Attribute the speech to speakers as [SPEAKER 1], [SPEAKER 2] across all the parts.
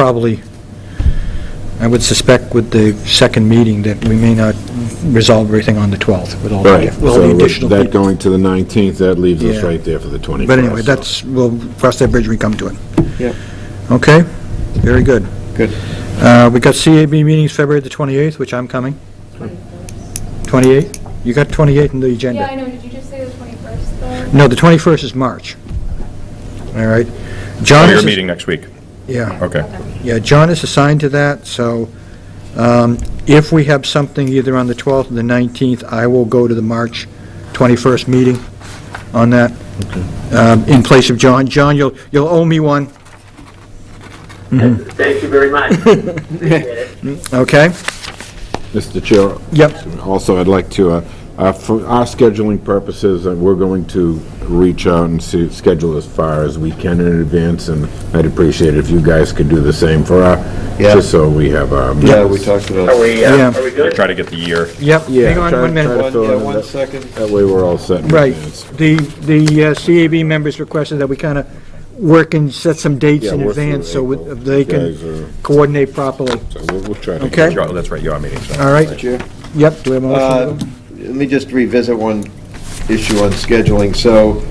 [SPEAKER 1] probably, I would suspect with the second meeting that we may not resolve everything on the 12th with all the,
[SPEAKER 2] Right,
[SPEAKER 1] diff- with all the
[SPEAKER 2] so with
[SPEAKER 1] additional
[SPEAKER 2] that
[SPEAKER 1] people.
[SPEAKER 2] going to the 19th, that leaves us
[SPEAKER 1] Yeah.
[SPEAKER 2] right there for the 21st.
[SPEAKER 1] But anyway,
[SPEAKER 2] so-
[SPEAKER 1] that's, we'll cross that bridge when we come to it.
[SPEAKER 3] Yep.
[SPEAKER 1] Okay? Very good.
[SPEAKER 3] Good.
[SPEAKER 1] Uh, we got CAB meetings February the 28th, which I'm coming. 28th? You got 28th in the agenda?
[SPEAKER 4] Yeah, I know, did you just say the 21st though?
[SPEAKER 1] No, the 21st is March. All right?
[SPEAKER 5] Oh,
[SPEAKER 1] John
[SPEAKER 5] you're
[SPEAKER 1] is-
[SPEAKER 5] meeting next week.
[SPEAKER 1] Yeah.
[SPEAKER 5] Okay.
[SPEAKER 1] Yeah, John is assigned to that, so um, if we have something either on the 12th or the 19th, I will go to the March 21st meeting on that, um, in place of John. John, you'll, you'll owe me one,
[SPEAKER 6] Thank you very much. Appreciate it.
[SPEAKER 1] okay?
[SPEAKER 2] Mr. Chair,
[SPEAKER 1] Yep,
[SPEAKER 2] also, I'd like to, uh, uh, for our scheduling purposes, uh, we're going to reach out and see, schedule as far as we can in advance, and I'd appreciate it if you guys could do the same for our,
[SPEAKER 3] Yeah.
[SPEAKER 2] just so we have uh, our...
[SPEAKER 3] Yeah, we talked
[SPEAKER 6] Are
[SPEAKER 3] about.
[SPEAKER 6] we, uh,
[SPEAKER 1] Yeah.
[SPEAKER 6] are we good?
[SPEAKER 5] Try to get the year.
[SPEAKER 1] yep.
[SPEAKER 2] Yeah,
[SPEAKER 1] Hang on
[SPEAKER 2] try-
[SPEAKER 1] one minute.
[SPEAKER 2] try
[SPEAKER 3] One, yeah, one second.
[SPEAKER 2] That way, we're all set in
[SPEAKER 1] Right.
[SPEAKER 2] advance.
[SPEAKER 1] The, the uh, CAB members requested that we kind of work and set some dates
[SPEAKER 2] Yeah,
[SPEAKER 1] in
[SPEAKER 2] work through
[SPEAKER 1] advance so we-
[SPEAKER 2] April.
[SPEAKER 1] they
[SPEAKER 2] Guys
[SPEAKER 1] can
[SPEAKER 2] are-
[SPEAKER 1] coordinate properly.
[SPEAKER 2] So we'll, we'll try to...
[SPEAKER 1] Okay.
[SPEAKER 5] You are- That's right, you are meeting. so-
[SPEAKER 1] All right,
[SPEAKER 3] Chair.
[SPEAKER 1] yep, do we have a
[SPEAKER 3] Uh,
[SPEAKER 1] motion?
[SPEAKER 3] Let me just revisit one issue on scheduling. So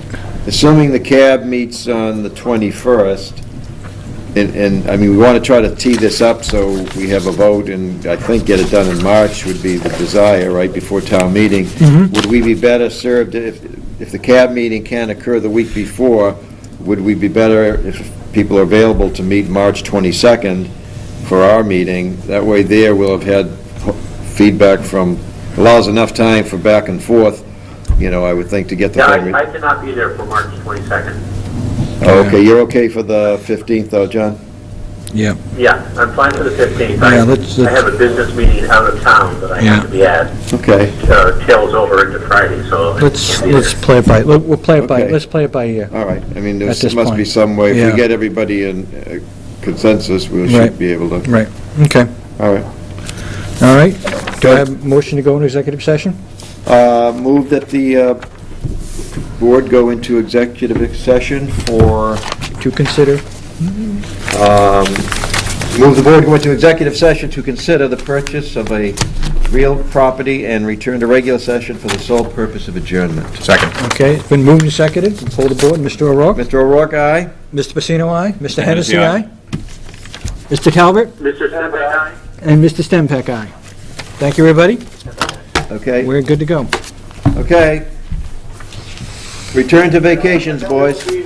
[SPEAKER 3] assuming the cab meets on the 21st, and, and, I mean, we want to try to tee this up so we have a vote and I think get it done in March would be the desire, right, before town meeting. Would we be better served if, if the cab meeting can occur the week before, would we be better if people are available to meet March 22nd for our meeting? That way there, we'll have had feedback from, allows enough time for back and forth, you know, I would think to get the.
[SPEAKER 6] Yeah,
[SPEAKER 3] form-
[SPEAKER 6] I I cannot be there for March 22nd.
[SPEAKER 3] Okay, you're okay for the 15th though, John?
[SPEAKER 1] Yeah,
[SPEAKER 6] Yeah, I'm fine for the 15th.
[SPEAKER 1] Yeah, let's-
[SPEAKER 6] I- I
[SPEAKER 1] let's-
[SPEAKER 6] have a business meeting out of town that I have to be at.
[SPEAKER 3] Okay,
[SPEAKER 6] uh, Tails over into Friday, so. I
[SPEAKER 1] let's,
[SPEAKER 6] can't be
[SPEAKER 1] let's
[SPEAKER 6] there.
[SPEAKER 1] play it by, let- we'll play it by,
[SPEAKER 3] Okay.
[SPEAKER 1] let's play it by ear.
[SPEAKER 3] all right. I mean, there
[SPEAKER 1] At this
[SPEAKER 3] must be
[SPEAKER 1] point.
[SPEAKER 3] some way, if
[SPEAKER 1] Yeah.
[SPEAKER 3] we get everybody in uh, consensus, we
[SPEAKER 1] Right.
[SPEAKER 3] should be able to,
[SPEAKER 1] Right,
[SPEAKER 2] Uh,
[SPEAKER 1] okay,
[SPEAKER 3] all right.
[SPEAKER 1] all right. Do I have a motion to go into executive session?
[SPEAKER 3] Uh, Move that the uh, board go into executive session for,
[SPEAKER 1] To consider,
[SPEAKER 3] um, move the board go into executive session to consider the purchase of a real property and return to regular session for the sole purpose of adjournment.
[SPEAKER 5] Second.
[SPEAKER 1] okay, it's been moved and seconded, pull the board, Mr. O'Rourke,
[SPEAKER 3] Mr. O'Rourke, aye?
[SPEAKER 1] Mr. Pacino, aye, Mr. Hennessy,
[SPEAKER 5] Hennessy, aye.
[SPEAKER 1] aye, Mr. Talbot,
[SPEAKER 6] Mr. Stempel, aye?
[SPEAKER 1] and Mr. Stempak, aye. Thank you, everybody,
[SPEAKER 3] Okay.
[SPEAKER 1] we're good to go.
[SPEAKER 3] Okay. Return to vacations, boys.